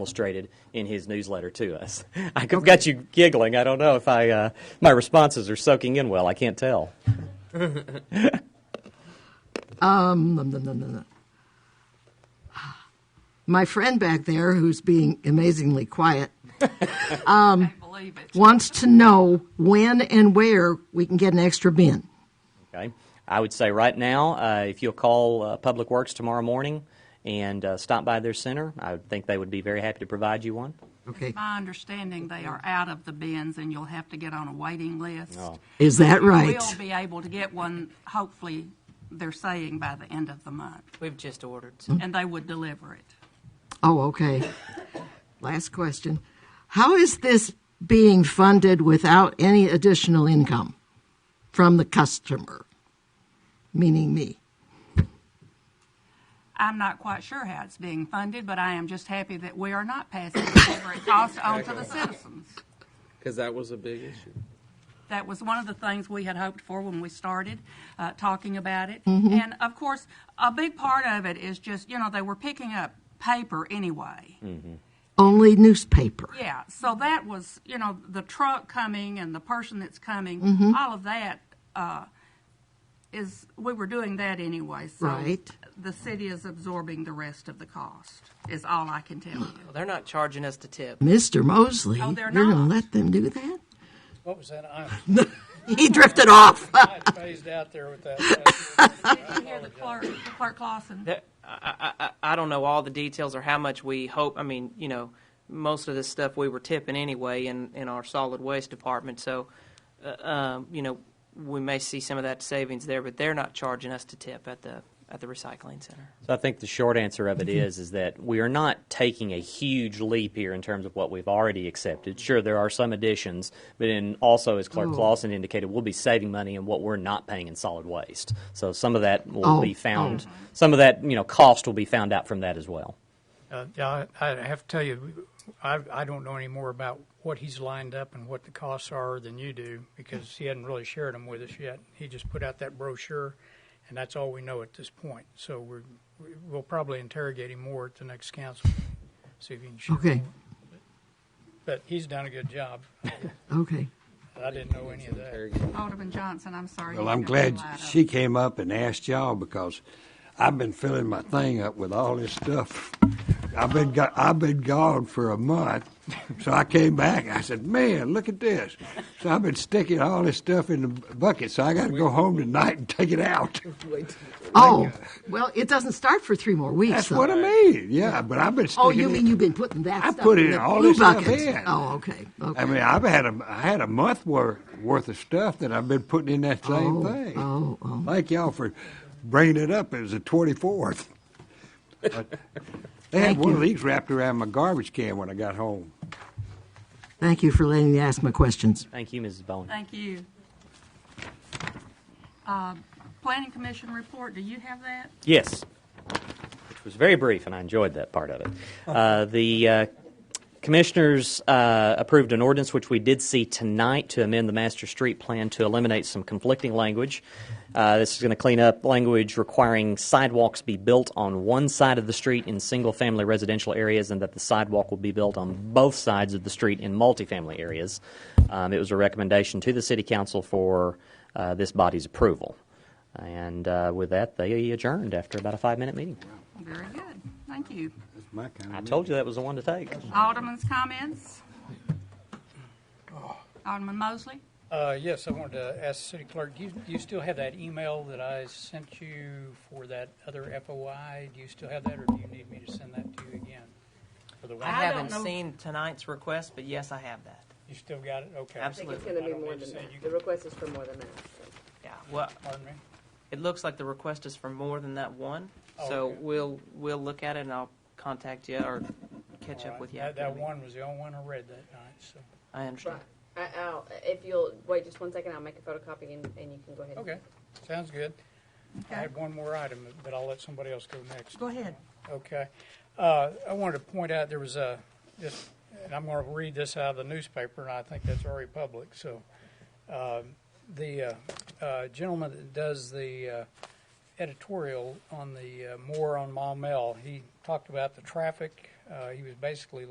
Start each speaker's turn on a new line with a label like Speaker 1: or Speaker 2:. Speaker 1: Illustrated in his newsletter to us. I've got you giggling. I don't know if I, uh, my responses are soaking in well. I can't tell.
Speaker 2: Nom, nom, nom, nom, nom. My friend back there, who's being amazingly quiet,
Speaker 3: believe it.
Speaker 2: wants to know when and where we can get an extra bin.
Speaker 1: Okay. I would say right now, uh, if you'll call uh, Public Works tomorrow morning and uh, stop by their center, I would think they would be very happy to provide you one.
Speaker 2: Okay.
Speaker 3: My understanding, they are out of the bins, and you'll have to get on a waiting list.
Speaker 2: Is that right?
Speaker 3: We'll be able to get one, hopefully, they're saying by the end of the month,
Speaker 4: We've just ordered some.
Speaker 3: and they would deliver it.
Speaker 2: Oh, okay. Last question. How is this being funded without any additional income from the customer? Meaning me.
Speaker 3: I'm not quite sure how it's being funded, but I am just happy that we are not passing whatever it costs on to the citizens.
Speaker 5: Because that was a big issue.
Speaker 3: That was one of the things we had hoped for when we started uh, talking about it. And of course, a big part of it is just, you know, they were picking up paper anyway.
Speaker 2: Only newspaper.
Speaker 3: Yeah, so that was, you know, the truck coming and the person that's coming, all of that uh, is, we were doing that anyway. So
Speaker 2: Right.
Speaker 3: the city is absorbing the rest of the cost, is all I can tell you.
Speaker 4: Well, they're not charging us to tip.
Speaker 2: Mr. Mosley,
Speaker 3: Oh, they're
Speaker 2: you're going to
Speaker 3: not.
Speaker 2: let them do that?
Speaker 6: What was that? I
Speaker 2: He drifted off.
Speaker 6: I phased out there with that.
Speaker 3: Did you hear the clerk, Clerk Lawson?
Speaker 4: That- I, I, I- I don't know all the details or how much we hope. I mean, you know, most of this stuff we were tipping anyway in, in our solid waste department. So, uh, um, you know, we may see some of that savings there, but they're not charging us to tip at the at the recycling center.
Speaker 1: So I think the short answer of it is is that we are not taking a huge leap here in terms of what we've already accepted. Sure, there are some additions, but in also as Clerk Clausen indicated, we'll be saving money in what we're not paying in solid waste. So some of that will
Speaker 2: Oh,
Speaker 1: be found. Some of that you know cost will be found out from that as well.
Speaker 6: Uh, yeah, I, I have to tell you, I, I don't know any more about what he's lined up and what the costs are than you do because he hadn't really shared them with us yet. He just put out that brochure, and that's all we know at this point. So we're, we'll probably interrogate him more at the next council, see if he can share
Speaker 2: Okay.
Speaker 6: more. But he's done a good job.
Speaker 2: Okay.
Speaker 6: I didn't know any of that.
Speaker 3: Alderman Johnson, I'm sorry.
Speaker 7: Well,
Speaker 3: you
Speaker 7: I'm
Speaker 3: didn't
Speaker 7: glad
Speaker 3: light up.
Speaker 7: she came up and asked y'all because I've been filling my thing up with all this stuff. I've been go- I've been gone for a month, so I came back. I said, "Man, look at this!" So I've been sticking all this stuff in the bu- bucket. So I got to go home tonight and take it out.
Speaker 2: Oh, well, it doesn't start for three more weeks.
Speaker 7: That's
Speaker 2: though.
Speaker 7: what I mean. Yeah, but I've been. Sticking
Speaker 2: Oh, you
Speaker 7: it-
Speaker 2: mean you've been putting that
Speaker 7: I
Speaker 2: stuff
Speaker 7: put
Speaker 2: in
Speaker 7: in
Speaker 2: the
Speaker 7: all
Speaker 2: blue
Speaker 7: this stuff
Speaker 2: buckets?
Speaker 7: in.
Speaker 2: Oh, okay. okay.
Speaker 7: I mean, I've had a I had a month worth worth of stuff that I've been putting in that same
Speaker 2: Oh,
Speaker 7: thing.
Speaker 2: oh, oh.
Speaker 7: Thank y'all for bringing it up. It was the twenty fourth. They had
Speaker 2: Thank
Speaker 7: one of
Speaker 2: you.
Speaker 7: these wrapped around my garbage can when I got home.
Speaker 2: Thank you for letting me ask my questions.
Speaker 1: Thank you, Mrs. Bowen.
Speaker 3: Thank you. Uh, Planning Commission report, do you have that?
Speaker 1: Yes, which was very brief, and I enjoyed that part of it. Uh, the uh, commissioners uh, approved an ordinance, which we did see tonight, to amend the master street plan to eliminate some conflicting language. Uh, this is going to clean up language requiring sidewalks be built on one side of the street in single family residential areas and that the sidewalk will be built on both sides of the street in multifamily areas. Um, it was a recommendation to the City Council for uh, this body's approval. And uh, with that, they adjourned after about a five minute meeting.
Speaker 3: Very good, thank you.
Speaker 7: That's my kind
Speaker 1: I
Speaker 7: of.
Speaker 1: told you that was the one to take.
Speaker 3: Alderman's comments? Alderman Mosley?
Speaker 6: Uh, yes, I wanted to ask the city clerk, do you, do you still have that email that I sent you for that other FOI? Do you still have that, or do you need me to send that to you again? For the
Speaker 4: I,
Speaker 6: one,
Speaker 3: I don't
Speaker 4: haven't
Speaker 3: know.
Speaker 4: seen tonight's request, but yes, I have that.
Speaker 6: you still got it? Okay.
Speaker 8: I think
Speaker 4: Absolutely.
Speaker 8: it's going to
Speaker 6: I
Speaker 8: be
Speaker 6: don't
Speaker 8: more
Speaker 6: need to
Speaker 8: than
Speaker 6: say
Speaker 8: that.
Speaker 6: you
Speaker 8: The
Speaker 6: can-
Speaker 8: request is for more than that. so.
Speaker 4: Yeah. Well,
Speaker 6: Pardon me?
Speaker 4: it looks like the request is for more than that one.
Speaker 6: Oh,
Speaker 4: so
Speaker 6: okay.
Speaker 4: we'll we'll look at it and I'll contact you or catch
Speaker 6: All
Speaker 4: up
Speaker 6: right.
Speaker 4: with you.
Speaker 6: That,
Speaker 4: after the
Speaker 6: that
Speaker 4: meeting.
Speaker 6: one was the only one I read that night, so,
Speaker 4: I understand.
Speaker 8: Right. I, I'll, if you'll wait just one second, I'll make a photocopy and, and you can go ahead.
Speaker 6: okay, sounds good. I
Speaker 3: Okay.
Speaker 6: had one more item, but I'll let somebody else go next.
Speaker 3: Go ahead.
Speaker 6: Okay. Uh, I wanted to point out, there was a, this, and I'm going to read this out of the newspaper, and I think that's already public, so. um, The uh, uh, gentleman that does the uh, editorial on the uh, Moore on Maumelle, he talked about the traffic Uh, he was basically